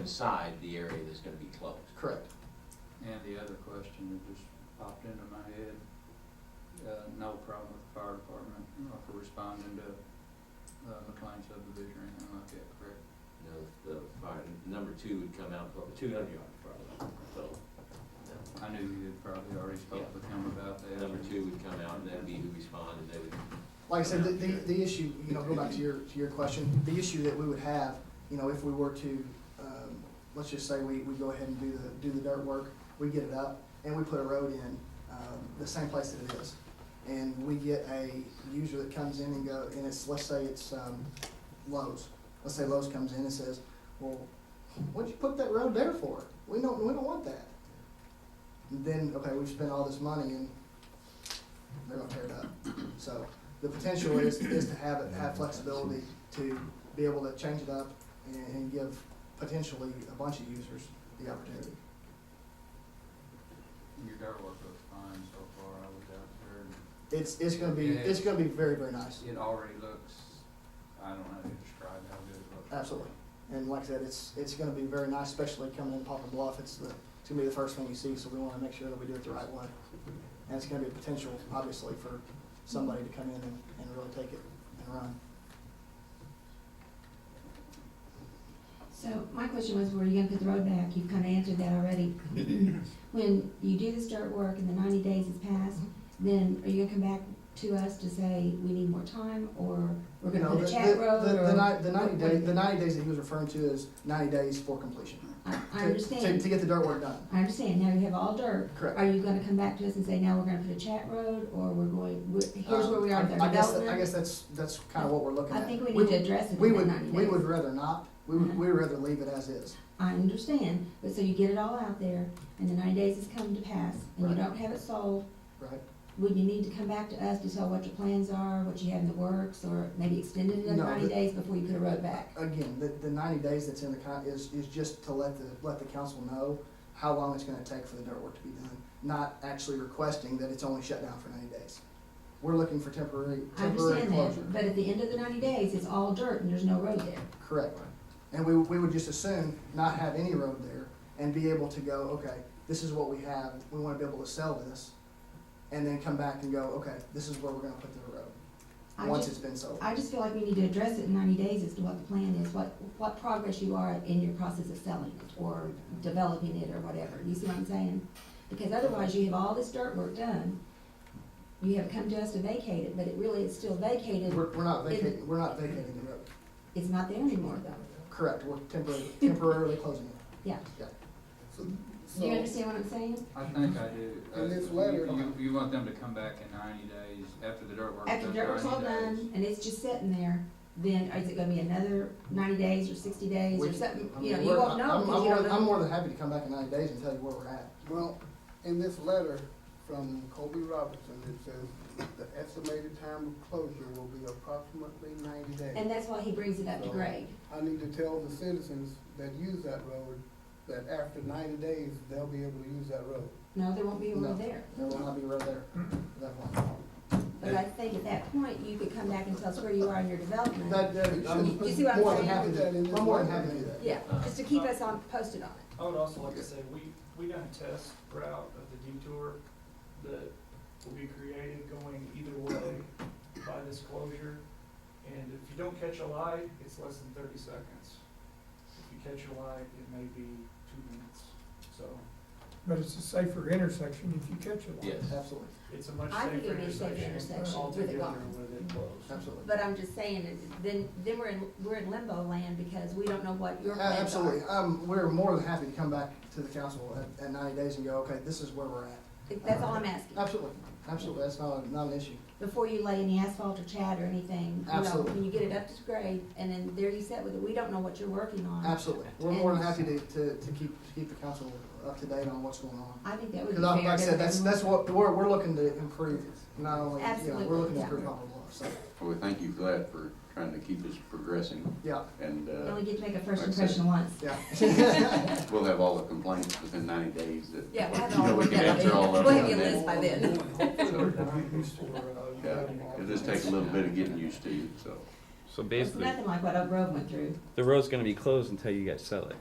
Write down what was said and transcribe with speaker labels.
Speaker 1: inside the area that's gonna be closed.
Speaker 2: Correct.
Speaker 3: And the other question that just popped into my head, uh, no problem with the fire department uh, for responding to, uh, McLean subdivision or anything like that, correct?
Speaker 1: You know, the fire, number two would come out, two hundred yard probably, so.
Speaker 3: I knew you had probably already spoke with him about that.
Speaker 1: Number two would come out and that'd be who responded, they would,
Speaker 2: Like I said, the, the, the issue, you know, go back to your, to your question, the issue that we would have, you know, if we were to, um, let's just say we, we go ahead and do the, do the dirt work, we get it up, and we put a road in, um, the same place that it is. And we get a user that comes in and go, and it's, let's say it's, um, Lowe's. Let's say Lowe's comes in and says, well, what'd you put that road there for? We don't, we don't want that. Then, okay, we've spent all this money and they're gonna tear it up. So the potential is, is to have it, have flexibility to be able to change it up and, and give potentially a bunch of users the opportunity.
Speaker 3: Your dirt work looks fine so far, I was out there, and
Speaker 2: It's, it's gonna be, it's gonna be very, very nice,
Speaker 3: it already looks, I don't know how to describe how good it looks.
Speaker 2: absolutely. And like I said, it's, it's gonna be very nice, especially coming in Papa Bluff, it's the, it's gonna be the first thing you see, so we wanna make sure that we do it the right way. And it's gonna be a potential, obviously, for somebody to come in and, and really take it and run.
Speaker 4: So my question was, were you gonna put the road back? You've kinda answered that already. When you do this dirt work and the ninety days has passed, then are you gonna come back to us to say, we need more time, or we're
Speaker 2: You
Speaker 4: gonna
Speaker 2: know,
Speaker 4: put a
Speaker 2: the-
Speaker 4: chat
Speaker 2: the-
Speaker 4: road,
Speaker 2: the-
Speaker 4: or?
Speaker 2: The ninety, the ninety
Speaker 4: what- what
Speaker 2: day,
Speaker 4: do
Speaker 2: the
Speaker 4: you-
Speaker 2: ninety days that he was referring to is ninety days for completion.
Speaker 4: I, I
Speaker 2: to- To, to
Speaker 4: understand,
Speaker 2: get the dirt work done.
Speaker 4: I understand, now you have all dirt.
Speaker 2: Correct.
Speaker 4: Are you gonna come back to us and say, now we're gonna put a chat road, or we're going, we're- here's where we are
Speaker 2: Um,
Speaker 4: with our
Speaker 2: I I guess, that- I
Speaker 4: development?
Speaker 2: guess that's, that's kind of what we're looking
Speaker 4: I
Speaker 2: at.
Speaker 4: think we need to address it
Speaker 2: We
Speaker 4: in that
Speaker 2: would,
Speaker 4: ninety
Speaker 2: we
Speaker 4: days.
Speaker 2: would rather not, we would,
Speaker 4: Mhm.
Speaker 2: we'd rather leave it as is.
Speaker 4: I understand, but so you get it all out there, and the ninety days has come to pass, and you
Speaker 2: Right.
Speaker 4: don't have it sold,
Speaker 2: Right.
Speaker 4: Would you need to come back to us to tell what your plans are, what you have in the works, or maybe extend it another
Speaker 2: No,
Speaker 4: ninety
Speaker 2: the-
Speaker 4: days before you put a road back?
Speaker 2: Again, the, the ninety days that's in the con, is, is just to let the, let the council know how long it's gonna take for the dirt work to be done, not actually requesting that it's only shut down for ninety days. We're looking for temporary,
Speaker 4: I
Speaker 2: temporary
Speaker 4: understand
Speaker 2: closure.
Speaker 4: that, but at the end of the ninety days, it's all dirt and there's no road there.
Speaker 2: Correct. And we, we would just assume not have any road there and be able to go, okay, this is what we have, we wanna be able to sell this. And then come back and go, okay, this is where we're gonna put the road,
Speaker 4: I
Speaker 2: once
Speaker 4: just-
Speaker 2: it's been sold.
Speaker 4: I just feel like we need to address it in ninety days as to what the plan is, what, what progress you are in your process of selling it or developing it or whatever, you see what I'm saying? Because otherwise, you have all this dirt work done, you have come to us to vacate it, but it really is still vacated,
Speaker 2: We're, we're not
Speaker 4: It-
Speaker 2: vacating, we're not vacating the road.
Speaker 4: it's not there anymore though.
Speaker 2: Correct, we're temporarily, temporarily closing it.
Speaker 5: So,
Speaker 4: Do you
Speaker 5: so,
Speaker 4: understand what I'm saying?
Speaker 3: I think I do.
Speaker 5: In
Speaker 3: Uh,
Speaker 5: this
Speaker 3: you-
Speaker 5: letter,
Speaker 3: You,
Speaker 5: you-
Speaker 3: you want them to come back in ninety days after the dirt work.
Speaker 4: After dirt work's all done and it's just sitting there, then is it gonna be another ninety days or sixty days or
Speaker 2: We-
Speaker 4: something?
Speaker 2: I
Speaker 4: You know,
Speaker 2: mean,
Speaker 4: you
Speaker 2: we're-
Speaker 4: won't know
Speaker 2: I'm- I'm
Speaker 4: because you
Speaker 2: more-
Speaker 4: don't
Speaker 2: I'm
Speaker 4: know.
Speaker 2: more than happy to come back in ninety days and tell you where we're at.
Speaker 5: well, in this letter from Kobe Robertson, it says the estimated time of closure will be approximately ninety days.
Speaker 4: And that's why he brings it up to
Speaker 5: So-
Speaker 4: grade.
Speaker 5: I need to tell the citizens that use that road that after ninety days, they'll be able to use that road.
Speaker 4: No, there won't be
Speaker 2: No.
Speaker 4: one there.
Speaker 2: There will not be a road there, at that one.
Speaker 4: But I think at that point, you could come back and tell us where you are in your development.
Speaker 2: That, that, I'm
Speaker 4: You see what I'm
Speaker 2: more than
Speaker 4: saying?
Speaker 2: happy to, I'm more than happy to do that.
Speaker 4: Yeah, just to keep us on, posted on it.
Speaker 6: I would also like to say, we, we done a test route of the detour that will be created going either way by this closure. And if you don't catch a light, it's less than thirty seconds. If you catch a light, it may be two minutes. So
Speaker 7: But it's a safer intersection if you catch it.
Speaker 1: yes.
Speaker 2: Absolutely,
Speaker 6: it's a much
Speaker 4: I think
Speaker 6: safer
Speaker 4: it'd be a safer
Speaker 6: intersection
Speaker 4: intersection with it
Speaker 6: altogether
Speaker 4: gone.
Speaker 6: with it closed.
Speaker 2: absolutely.
Speaker 4: But I'm just saying, it- then, then we're in, we're in limbo land because we don't know what your
Speaker 2: A-
Speaker 4: plans are.
Speaker 2: Uh, Absolutely, um, we're more than happy to come back to the council at, at ninety days and go, okay, this is where we're at.
Speaker 4: That's all I'm asking.
Speaker 2: Absolutely, absolutely, that's not, a- not an issue.
Speaker 4: before you lay any asphalt or chat or anything. you know,
Speaker 2: Absolutely.
Speaker 4: When you get it up to grade, and then there you sit with it, we don't know what you're working on.
Speaker 2: Absolutely, we're more than happy to, to, to keep, to keep the council up to date on what's going on.
Speaker 4: I think that would be
Speaker 2: Because
Speaker 4: fair.
Speaker 2: like I
Speaker 4: to
Speaker 2: said, that's, that's what, we're, we're looking to improve, not only, you know,
Speaker 4: Absolutely,
Speaker 2: we're looking to
Speaker 4: yeah.
Speaker 2: improve Poplar Bluff, so,
Speaker 8: Well, we thank you for that, for trying to keep us progressing,
Speaker 2: yeah,
Speaker 8: and
Speaker 4: You
Speaker 8: uh,
Speaker 4: only get to make a first
Speaker 8: Like I said.
Speaker 4: impression once.
Speaker 2: yeah.
Speaker 8: we'll have all the complaints within ninety days that,
Speaker 4: Yeah, we'll have it
Speaker 8: you know,
Speaker 4: all
Speaker 8: we
Speaker 4: worked
Speaker 8: can
Speaker 4: out.
Speaker 8: answer all of them.
Speaker 4: We'll have you a
Speaker 8: and
Speaker 4: list by then.
Speaker 8: Yeah, It'll just take a little bit of getting used to, so.
Speaker 9: So
Speaker 4: It's
Speaker 9: basically,
Speaker 4: nothing like what Oak Grove went through.
Speaker 9: the road's gonna be closed until you guys sell it.